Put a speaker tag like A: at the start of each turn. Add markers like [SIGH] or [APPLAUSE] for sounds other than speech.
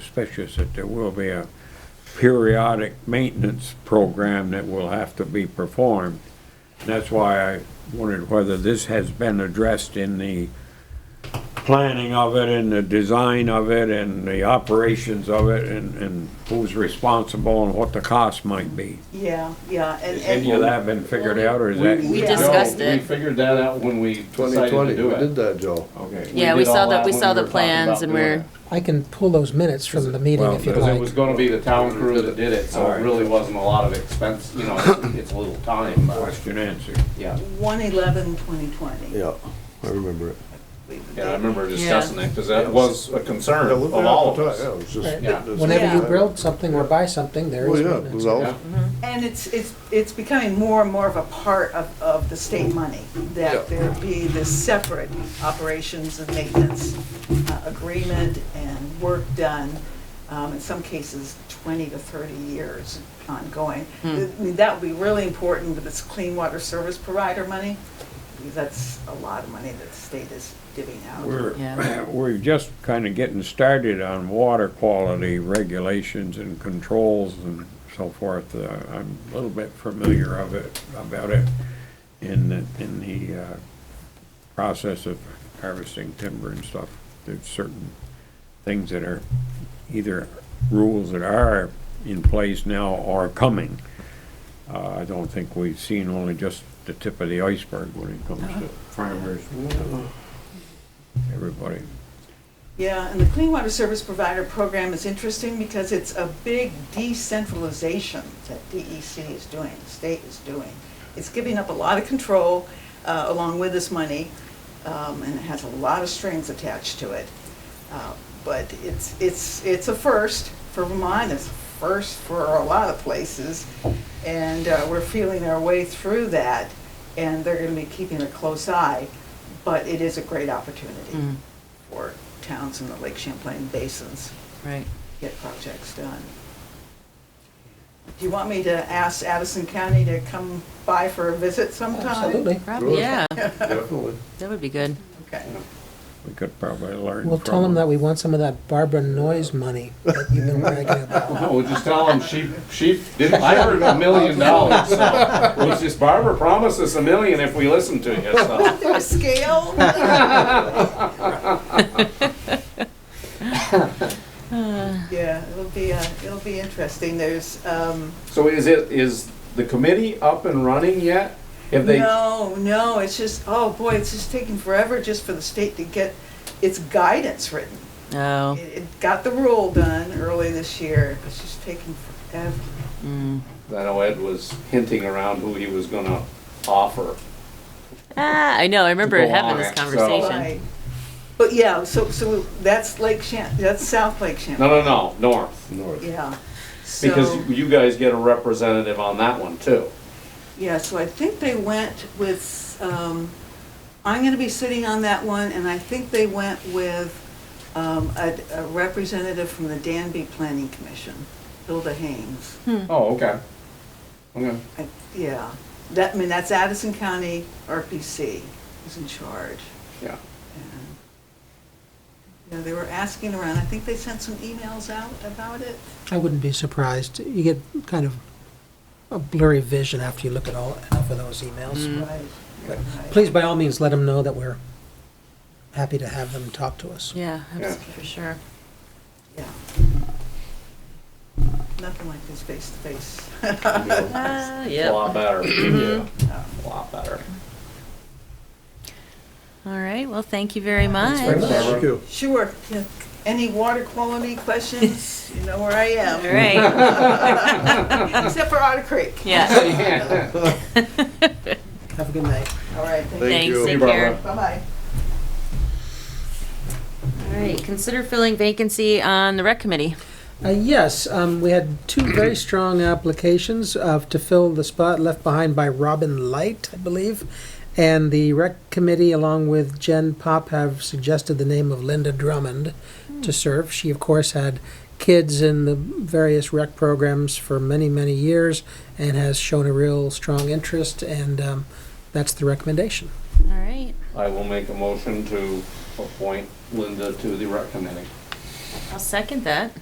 A: suspicious that there will be a periodic maintenance program that will have to be performed. And That's why I wondered whether this has been addressed in the planning of it and the design of it and the operations of it and, and who's responsible and what the cost might be.
B: Yeah, yeah, and,
A: Has any of
B: and,
A: that been figured out or is that?
B: We discussed
C: No,
D: it.
C: We figured that out when we decided
E: 2020,
C: to do
E: we did
C: it.
E: that, Joe.
A: Okay.
D: Yeah,
C: did
D: we saw
C: all
D: the-
C: that
D: we
C: when
D: saw the
C: were talking
D: plans
C: about
D: and
C: doing
D: we're-
C: it.
F: I can pull those minutes from the meeting
A: Well,
F: if you'd
A: does
C: Because it was
F: like.
C: gonna be the town crew that did it, so
A: Alright.
C: it really wasn't a lot of expense, you know, it's a little time, but,
A: Question answered.
C: yeah.
B: one eleven twenty twenty.
E: Yeah, I remember it.
C: Yeah, I remember discussing that, because that was a concern
E: Yeah,
C: of
E: we-
C: all of
E: Yeah,
C: us.
E: it was just-
F: Right.
C: Yeah.
F: Whenever you
B: Yeah.
F: build something or buy something, there
E: Well,
F: is
E: Oh, yeah, Oh, it
F: maintenance.
E: was all,
C: Yeah.
B: And it's, it's, it's becoming more and more of a part of, of the state money, that there be this separate operations and maintenance uh, agreement and work done, um, in some cases, twenty to thirty years ongoing. I mean, That would be really important with this clean water service provider money, because that's a lot of money that the state is giving out.
A: We're,
D: Yeah.
A: we're just kind of getting started on water quality regulations and controls and so forth. Uh, I'm a little bit familiar of it, about it in, the- in the uh, process of harvesting timber and stuff. There's certain things that are either rules that are in place now or coming. Uh, I don't think we've seen only just the tip of the iceberg when it comes to farmers, everybody.
B: Yeah, and the Clean Water Service Provider Program is interesting because it's a big decentralization that DEC is doing, the state is doing. It's giving up a lot of control uh, along with this money, um, and it has a lot of strings attached to it. Uh, But it's, it's, it's a first for Vermont, it's a first for a lot of places, and uh, we're feeling our way through that, and they're gonna be keeping a close eye, but it is a great opportunity
D: Mm,
B: for towns in the Lake Champlain basins
D: Right.
B: get projects done. Do you want me to ask Addison County to come by for a visit sometime?
F: Absolutely.
D: Prob-
E: Sure.
D: Yeah,
E: definitely.
D: that would be good.
B: Okay.
A: We could probably learn.
F: We'll tell them
A: from-
F: that we want some of that Barbara Noise money that you've been bragging about.
C: [LAUGHS] No, we'll just tell them she, she, did- I heard a million dollars, so, it was just Barbara promised us a million if we listened to you, so.
B: Their scale? Yeah, it'll be, uh, it'll be interesting. There's, um,
C: So is it, is the committee up and running yet? Have they,
B: no, no, it's just, oh boy, it's just taking forever just for the state to get its guidance written.
D: Oh,
B: It it got the rule done early this year. It's just taking forever.
D: mm.
C: I know Ed was hinting around who he was gonna offer.
D: Ah, I know, I remember
C: To go
D: having
C: on
D: this
C: it, so-
D: conversation.
B: Right. But yeah, so, so that's Lake Champ, that's South Lake
C: No,
B: Champ.
C: no, no, north,
F: [LAUGHS]
E: North.
B: Yeah.
C: because
B: So,
C: you guys get a representative on that one too.
B: yeah, so I think they went with, um, I'm gonna be sitting on that one, and I think they went with, um, a, a representative from the Danby Planning Commission, Hilda Haynes.
C: Oh, okay. Okay.
B: I- Yeah, that, I mean, that's Addison County RPC is in charge.
C: Yeah.
B: And, You know, they were asking around, I think they sent some emails out about it.
F: I wouldn't be surprised. You get kind of a blurry vision after you look at all, enough of those emails.
B: Right.
F: Mm. Please, by all means, let them know that we're happy to have them talk to us.
D: Yeah,
C: Yeah.
D: abs- for sure.
B: Yeah. Nothing like this face to face.
F: [LAUGHS]
D: Ah,
C: A
D: yep. All
C: lot better. Yeah. A lot better.
D: right, well, thank you very much.
F: very much.
E: Thank you.
B: Sure, yeah. any water quality questions, you know where I
D: All
B: am,
D: right, [LAUGHS]
B: except for Otter Creek.
D: yeah.
C: [LAUGHS] Yeah.
F: Have a good night.
B: All right, thank you.
D: Thanks,
E: you.
D: take
C: Barbara.
D: care.
B: Bye-bye.
D: All right, consider filling vacancy on the rec committee.
F: Uh, Yes, um, we had two very strong applications uh, to fill the spot left behind by Robin Light, I believe. And the rec committee, along with Jen Pop, have suggested the name of Linda Drummond to serve. She, of course, had kids in the various rec programs for many, many years and has shown a real strong interest, and um, that's the recommendation.
D: All right,
C: I will make a motion to appoint Linda to the rec committee.
D: I'll second that.